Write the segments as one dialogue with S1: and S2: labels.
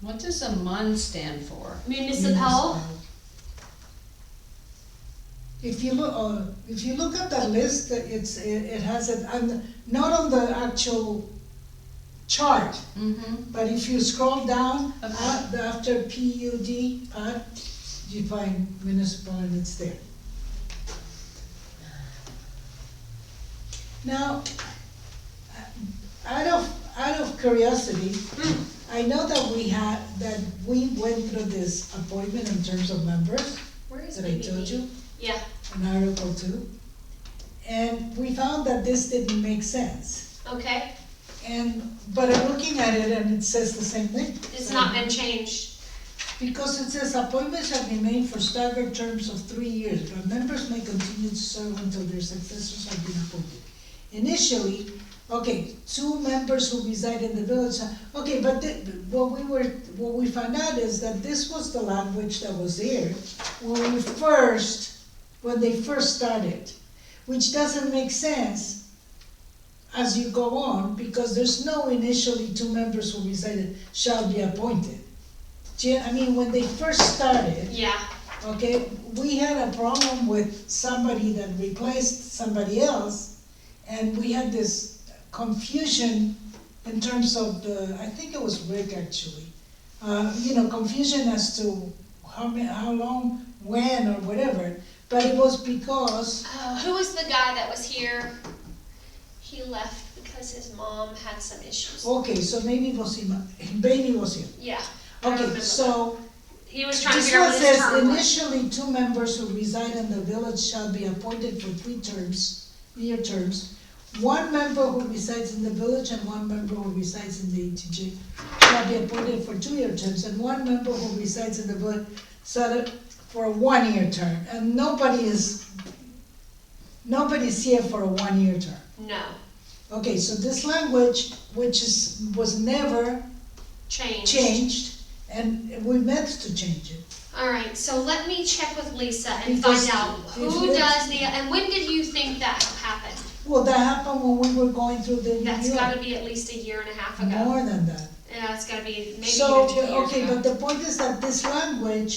S1: What does a MUN stand for?
S2: Municipal,
S3: If you look, oh, if you look at the list, it's, it it has it, I'm, not on the actual chart,
S1: Mm-hmm.
S3: but if you scroll down,
S1: Okay.
S3: uh, after P U D, PUD, you find municipal and it's there. Now, uh, out of, out of curiosity, I know that we had, that we went through this appointment in terms of members,
S2: where is
S3: that I told you
S2: BBB? Yeah,
S3: in Article two. And we found that this didn't make sense.
S2: okay,
S3: And, but I'm looking at it and it says the same thing.
S2: it's not been changed,
S3: Because it says appointments shall be made for staggered terms of three years, but members may continue to serve until their successors have been appointed. Initially, okay, two members who reside in the village, okay, but the, what we were, what we found out is that this was the language that was there when we first, when they first started, which doesn't make sense as you go on, because there's no initially two members who resided shall be appointed. Do you- I mean, when they first started,
S2: yeah,
S3: okay, we had a problem with somebody that replaced somebody else, and we had this confusion in terms of the, I think it was Rick actually, uh, you know, confusion as to how many, how long, when, or whatever, but it was because,
S2: Uh, who was the guy that was here? He left because his mom had some issues,
S3: okay, so maybe it was him, maybe it was him.
S2: yeah. I remember
S3: Okay,
S2: that.
S3: so
S2: He was trying to
S3: This
S2: figure out
S3: one
S2: what his
S3: says
S2: term was.
S3: initially, two members who reside in the village shall be appointed for three terms, year terms. One member who resides in the village and one member who resides in the ETJ shall be appointed for two-year terms, and one member who resides in the village shall be- for a one-year term, and nobody is, nobody's here for a one-year term.
S2: No,
S3: Okay, so this language, which is, was never
S2: changed.
S3: changed, and we meant to change it.
S2: Alright, so let me check with Lisa and
S3: Because
S2: find out
S3: if
S2: who
S3: we-
S2: does the, and when did you think that happened?
S3: Well, that happened when we were going through the
S2: That's
S3: New
S2: gotta
S3: York,
S2: be at least a year and a half ago.
S3: more than that.
S2: Yeah, it's gotta be maybe
S3: So,
S2: even two years ago.
S3: okay, but the point is that this language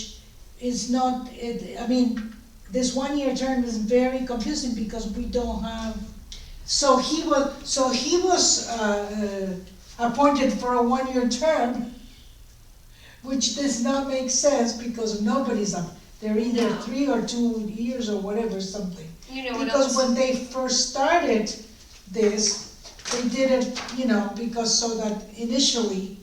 S3: is not, it, I mean, this one-year term is very confusing because we don't have, so he was, so he was, uh, uh, appointed for a one-year term, which does not make sense because nobody's up, they're either
S2: No.
S3: three or two years or whatever, something.
S2: You know what
S3: Because
S2: else?
S3: when they first started this, they did it, you know, because so that initially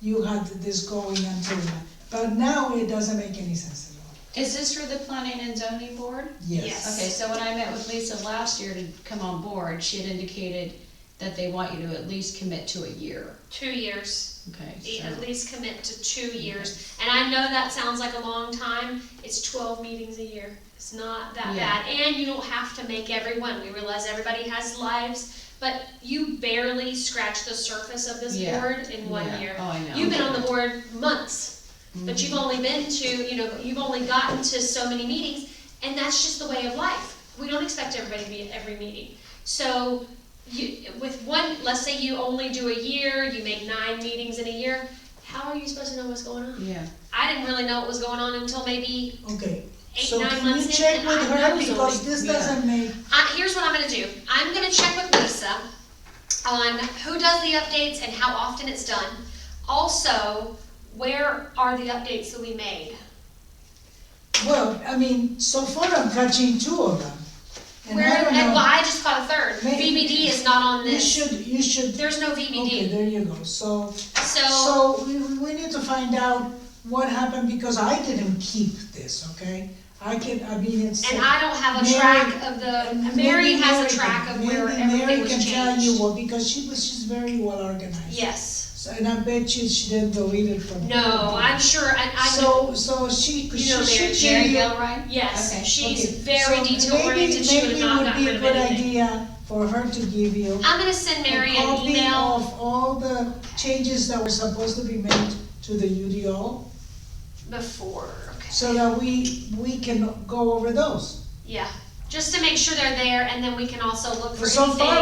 S3: you had this going until that. But now it doesn't make any sense at all.
S1: Is this for the planning and zoning board?
S2: Yes.
S1: Okay, so when I met with Lisa last year to come on board, she had indicated that they want you to at least commit to a year,
S2: Two years.
S1: okay?
S2: Yeah,
S1: so-
S2: e, at least commit to two years. And I know that sounds like a long time, it's twelve meetings a year, it's not that
S1: Yeah.
S2: bad. And you don't have to make everyone, we realize everybody has lives, but you barely scratch the surface of this
S1: Yeah.
S2: board in one
S1: Yeah.
S2: year.
S1: Oh, I know.
S2: You've been on the board months, but you've only been to, you know, you've only gotten to so many meetings, and that's just the way of life. We don't expect everybody to be at every meeting. So you, with one, let's say you only do a year, you make nine meetings in a year, how are you supposed to know what's going on?
S1: Yeah,
S2: I didn't really know what was going on until maybe
S3: Okay,
S2: eight,
S3: so
S2: nine
S3: can you
S2: months in.
S3: check
S2: and
S3: with
S2: I- I
S3: her
S2: was only-
S3: because this
S1: yeah.
S3: doesn't make,
S2: I, here's what I'm gonna do. I'm gonna check with Lisa on who does the updates and how often it's done. Also, where are the updates that we made?
S3: well, I mean, so far I'm catching two of them. And
S2: Where,
S3: I
S2: and
S3: don't
S2: well,
S3: know,
S2: I just caught a third.
S3: Maybe-
S2: VBD is not on
S3: you
S2: this.
S3: should, you should,
S2: There's no
S3: okay,
S2: VBD.
S3: there you go, so.
S2: So,
S3: So we, we need to find out what happened because I didn't keep this, okay? I can, I mean, it's.
S2: and I don't have a
S3: Mary-
S2: track of the, Mary
S3: Maybe
S2: has a
S3: Mary
S2: track
S3: can-
S2: of where
S3: maybe
S2: everything
S3: Mary
S2: was
S3: can tell you
S2: changed.
S3: what, because she was, she's very well organized.
S2: Yes.
S3: So, and I bet you she didn't delete it from.
S2: No, I'm sure, I, I,
S3: So, so she, she
S2: you know Mary-
S3: should
S1: Mary
S3: give you.
S1: Gilroy?
S2: yes,
S1: Okay,
S2: she's
S3: okay,
S2: very
S3: so
S2: detail oriented. She would have not gotten rid of
S3: Maybe, maybe it would be
S2: anything.
S3: a good idea for her to give you.
S2: I'm gonna send Mary
S3: a
S2: an
S3: copy
S2: email.
S3: Of all the changes that were supposed to be made to the UDO.
S2: Before, okay.
S3: so that we, we can go over those.
S2: Yeah, just to make sure they're there, and then we can also look for
S3: So far,
S2: anything